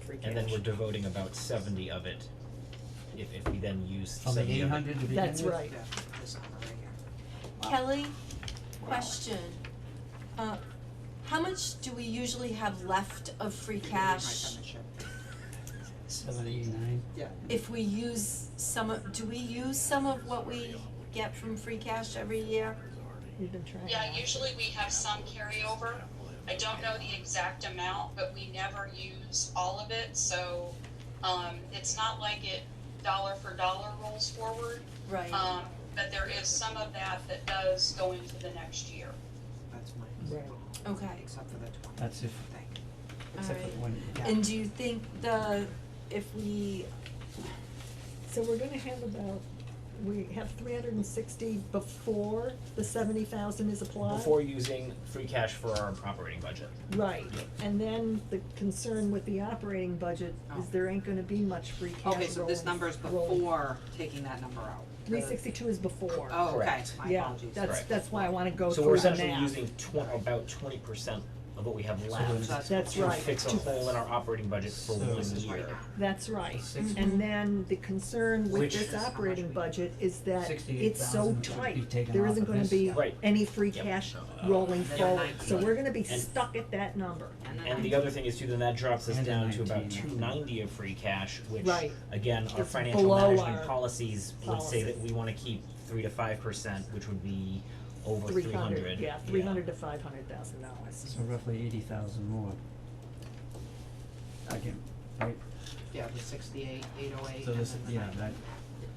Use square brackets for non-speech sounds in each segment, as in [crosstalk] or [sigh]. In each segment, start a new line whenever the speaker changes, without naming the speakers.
free cash.
And then we're devoting about seventy of it, if, if we then use
From the
seventy
eight
of it.
hundred to begin with?
That's right.
Yeah, this number right here.
Kelly, question. Uh, how much do we usually have left of free
My
cash
penmanship.
Seven, eight, nine,
Yeah,
if we use some of, do we use some of what we get from free cash every year?
We've been trying.
Yeah, usually we have some carryover. I don't know the exact amount, but we never use all of it, so, um, it's not like it dollar for dollar rolls forward.
Right.
Um, but there is some of that that does go into the next year.
that's
Right.
mine,
Okay,
except for the twenty
that's if,
thing.
except for the one, yeah.
and do you think the, if we,
So we're gonna have about, we have three hundred and sixty before the seventy thousand is applied?
Before using free cash for our operating budget.
Right, and then the concern with the operating budget is
Oh.
there ain't gonna be much free cash
Okay, so this
rolling-
number is
rolling.
before taking that number out.
Three sixty-two is before.
Oh, okay,
Correct.
my
Yeah,
apologies.
that's,
Right.
that's why I wanna go
Oh,
So
through
we're
the math.
essentially using twen- about twenty percent of what we have left
that's-
That's
to
right.
fix a
to-
hole in our operating budget for
So-
one
This
is right
year.
now.
That's right,
Six-
and then the concern with
Which-
this operating budget is that it's so
68,000 would be
tight,
taken
there
off
isn't
of
gonna
this.
be
Right.
any free
Yep.
cash rolling
Then
forward, so
19.
we're gonna be
And-
stuck at that number.
And the other thing is too, then that drops us
And a
down to about
19,
two ninety of free cash, which,
Right.
again, our
It's
financial
below
management
our
policies would say that we wanna keep three to five percent, which would be over three hundred.
Three hundred, yeah, three hundred to five hundred thousand dollars.
So roughly eighty thousand more. Again, right,
Yeah, the sixty-eight, eight oh eight.
so this, yeah, that,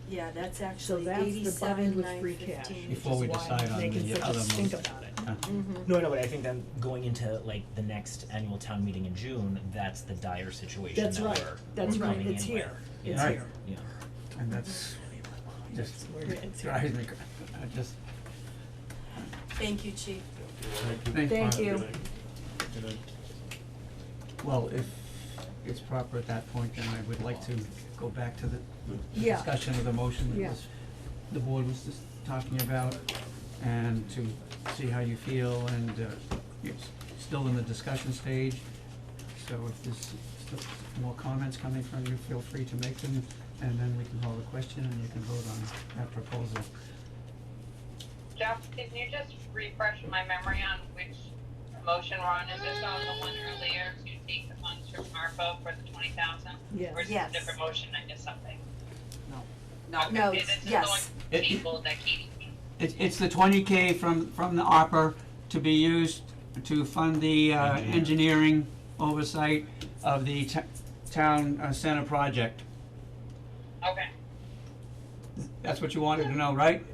yeah, that's
So
actually
that's the bind
eighty-seven,
with free
nine
cash,
fifteen.
which is
Before we
why
decide
I'm
on
making
the
such a
other
stink
ones.
about it.
uh,
Mm-hmm.
No, no, but I think then going into like the next annual town meeting in June, that's the dire situation that
That's
we're,
right, that's
we're
right,
coming
it's
in with.
here,
Yeah.
it's
Right.
here.
Yeah,
and that's just
Where it's here.
drives me, cra- I just,
Thank you, chief.
thank
Thank you,
Well, if it's proper at that point, then I would like to go back to the the
Yeah.
discussion of the motion that
Yeah.
was, the board was just talking about, and to see how you feel, and, uh, it's still in the discussion stage, so if there's still more comments coming from you, feel free to make them, and then we can hold a question, and you can vote on that proposal.
Jeff, can you just refresh my memory on which motion we're on? Is this on the one earlier to take the funds from ARPA for the twenty thousand?
Yes.
Or is this
Yes.
a different motion? I missed something.
No,
Okay,
No,
this is the
yes.
one
It-
Table that Katie.
It's, it's the twenty K from, from the ARPA to be used to fund the, uh, engineering oversight of the t- town uh, center project.
Okay.
That's what you wanted to know, right?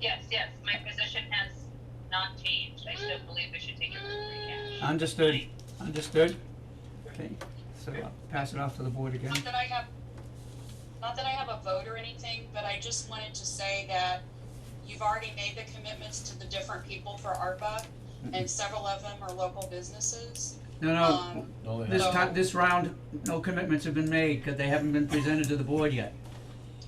Yes, yes, my position has not changed. I still believe we should take it from free cash.
Mm. Understood, understood? Okay, so I'll pass it off to the board again.
Not that I have, not that I have a vote or anything, but I just wanted to say that you've already made the commitments to the different people for ARPA, and several of them are local businesses.
No,
Um,
no, this time, this round, no commitments have been made, cause they haven't been presented to the board yet,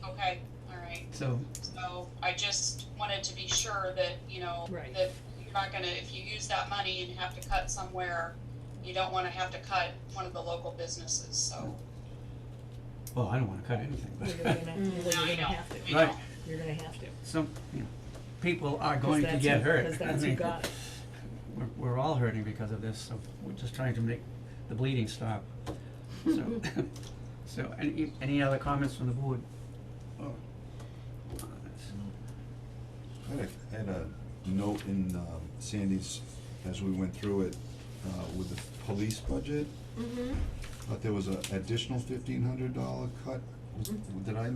Okay, all right,
so,
so I just wanted to be sure that, you know,
Right.
that you're not gonna, if you use that money and have to cut somewhere, you don't wanna have to cut one of the local businesses, so.
well, I don't wanna cut anything,
you're
but,
gonna, you're
No,
gonna
you don't,
have to,
[laughs]
you
Right.
don't.
you're gonna have to,
some, you know, people are
'Cause
going to
that's
get
who-
hurt.
Cause
[laughs] I
that's who
mean,
got it.
we're, we're all hurting because of this, so we're just trying to make the bleeding stop. So, so any, any other comments from the board? Oh. uh,
I had a- had a note in um, Sandy's, as we went through it, uh, with the police budget,
Mm-hmm.
but there was an additional fifteen hundred dollar cut. Was- Did I, did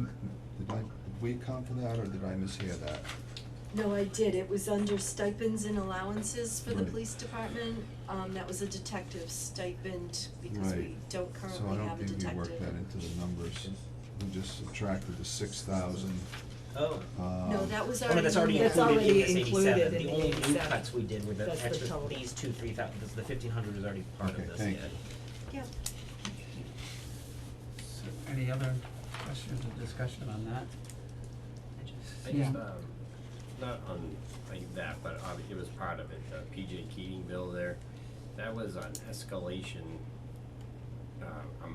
I, did we account for that, or did I mishear that?
No, I did, it was under stipends and allowances for the
Right.
police department, um, that was a detective stipend, because we
Right.
don't
So I
currently
don't
have a detective.
think we worked that into the numbers. We just subtracted the six thousand. um,
Oh.
No, that was
Oh, no,
already.
that's already
in there.
That's
included in
already
this
included
eighty-seven,
in
the
the
only new
87.
cuts we did were the
That's the
extra,
total.
these two, three thousand, the fifteen hundred is already part of
Okay,
this, yeah.
thank you.
Yeah.
So Any other questions or discussion on that?
I
Yeah.
just, um, not on, like that, but obvi- it was part of it, the PJ Keating bill there, that was on escalation
uh, I'm